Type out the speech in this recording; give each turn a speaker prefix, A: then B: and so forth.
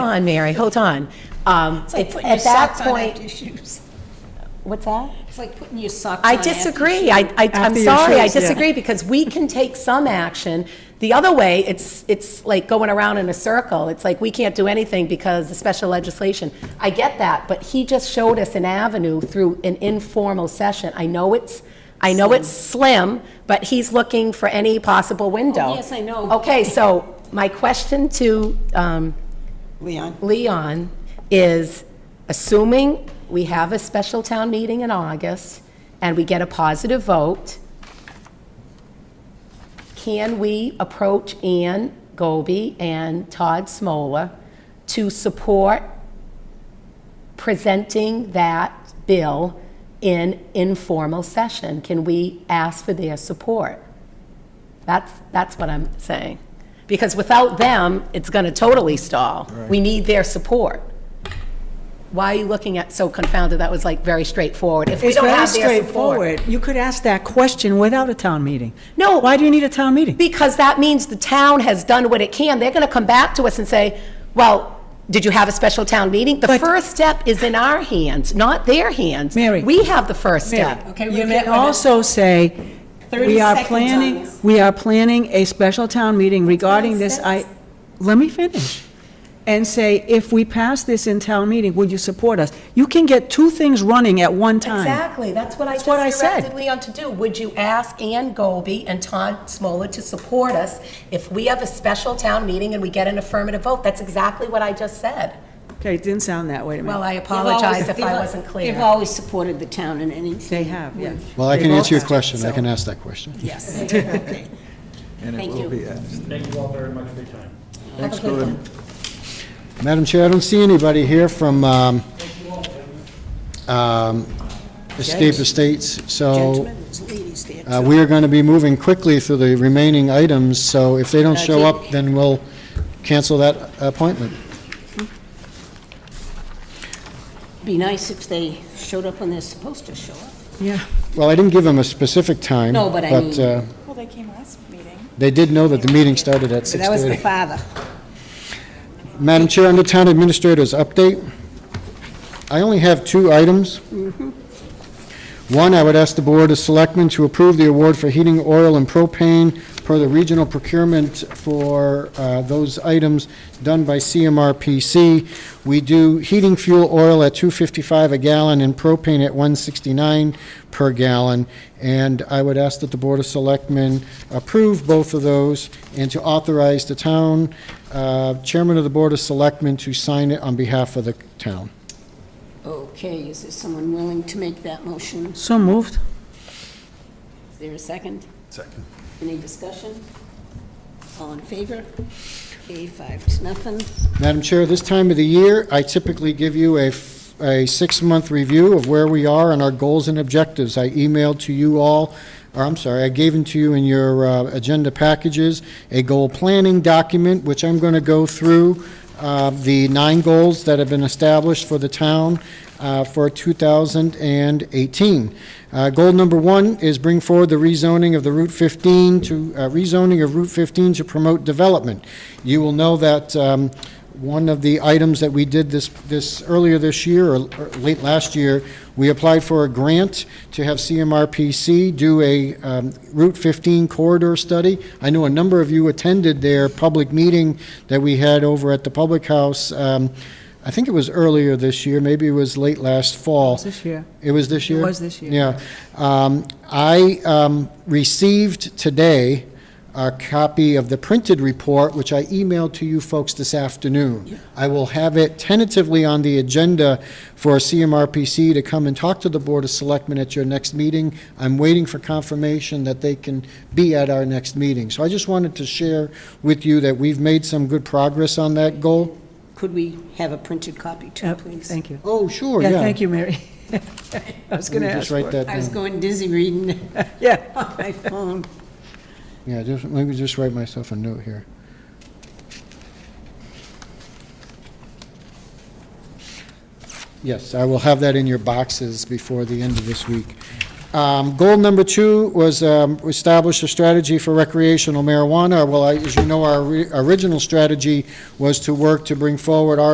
A: on, Mary, hold on. Um,
B: It's like
A: It's
B: putting your
A: At that
B: socks on after
A: point,
B: your shoes.
A: what's that?
B: It's like putting your socks on.
A: I
B: after your
A: disagree.
B: shoes.
A: I, I, I'm
C: After your
A: sorry, I
C: shoes, yeah.
A: disagree, because we can take some action. The other way, it's, it's like going around in a circle. It's like, we can't do anything because of special legislation. I get that, but he just showed us an avenue through an informal session. I know it's, I know it's slim, but he's looking for any possible window.
B: Oh, yes, I know.
A: Okay, so my question to, um,
C: Leon?
A: Leon, is assuming we have a special town meeting in August and we get a positive vote, can we approach Ann Goby and Todd Smola to support presenting that bill in informal session? Can we ask for their support? That's, that's what I'm saying. Because without them, it's going to totally stall. We need their support. Why are you looking at so confounded? That was like very straightforward. If we
C: It's
A: don't
C: very
A: have their support.
C: straightforward. You could ask that question without a town meeting.
A: No.
C: Why do you need a town meeting?
A: Because that means the town has done what it can. They're going to come back to us and say, well, did you have a special town meeting? The
C: But-
A: first step is in our hands, not their hands.
C: Mary.
A: We have the first step.
B: Okay, we
C: You may
B: can't-
C: also say,
B: 30
C: we are
B: seconds on
C: planning,
B: this.
C: we are planning a special town meeting regarding this, I, let me finish. And say, if we pass this in town meeting, would you support us? You can get two things running at one time.
A: Exactly, that's what I
C: That's what I
A: just
C: said.
A: directed Leon to do. Would you ask Ann Goby and Todd Smola to support us if we have a special town meeting and we get an affirmative vote? That's exactly what I just said.
C: Okay, it didn't sound that way to me.
A: Well, I
B: They've always-
A: apologize if I
B: they've-
A: wasn't
B: They've
A: clear.
B: always supported the town in anything.
C: They have, yes.
D: Well, I
C: They
D: can
C: both
D: answer your
C: have,
D: question. I
C: so-
D: can ask that question.
B: Yes, okay.
E: And it
B: Thank you.
E: will be asked.
F: Thank you all very much for your time.
E: Thanks, Gordon.
D: Madam Chair, I don't see anybody here from um, um, Escape Estates, so
C: Gentlemen, there's ladies there,
D: uh,
C: too.
D: we are going to be moving quickly through the remaining items, so if they don't
B: Uh,
D: show up, then we'll cancel that appointment.
B: Be nice if they showed up when they're supposed to show up.
C: Yeah.
D: Well, I didn't give them a specific time.
B: No, but I mean-
D: uh,
G: Well, they came last meeting.
D: They did know that the meeting started at 6:30.
B: That was the father.
D: Madam Chair, under Town Administrator's update, I only have two items. One, I would ask the Board of Selectmen to approve the award for heating oil and propane per the regional procurement for uh, those items done by CMRPC. We do heating fuel oil at 255 a gallon and propane at 169 per gallon. And I would ask that the Board of Selectmen approve both of those and to authorize the town uh, chairman of the Board of Selectmen to sign it on behalf of the town.
B: Okay, is there someone willing to make that motion?
C: So moved.
B: Is there a second?
E: Second.
B: Any discussion? All in favor? A five to nothing.
D: Madam Chair, this time of the year, I typically give you a, f- a six-month review of where we are and our goals and objectives. I emailed to you all, or I'm sorry, I gave them to you in your uh, agenda packages, a goal planning document, which I'm going to go through uh, the nine goals that have been established for the town uh, for 2018. Uh, Goal number one is bring forward the rezoning of the Route 15 to, uh, rezoning of Route 15 to promote development. You will know that um, one of the items that we did this, this, earlier this year, or or late last year, we applied for a grant to have CMRPC do a um, Route 15 corridor study. I know a number of you attended their public meeting that we had over at the Public House, um, I think it was earlier this year, maybe it was late last fall.
C: This year.
D: It was this
C: It
D: year?
C: was this year.
D: Yeah. Um, I um, received today a copy of the printed report, which I emailed to you folks this afternoon. I will have it tentatively on the agenda for CMRPC to come and talk to the Board of Selectmen at your next meeting. I'm waiting for confirmation that they can be at our next meeting. So I just wanted to share with you that we've made some good progress on that goal.
B: Could we have a printed copy too,
C: Yep,
B: please?
C: Thank you.
D: Oh, sure, yeah.
C: Yeah, thank you, Mary. I was going
D: Let
C: to
D: me
C: ask
D: Just
C: for
D: write
C: it.
D: that
B: I was
D: down.
B: going dizzy reading
C: Yeah.
B: on my phone.
D: Yeah, just, let me just write myself a note here. Yes, I will have that in your boxes before the end of this week. Um, Goal number two was um, establish a strategy for recreational marijuana. Well, I- as you know, our ori- original strategy was to work to bring forward our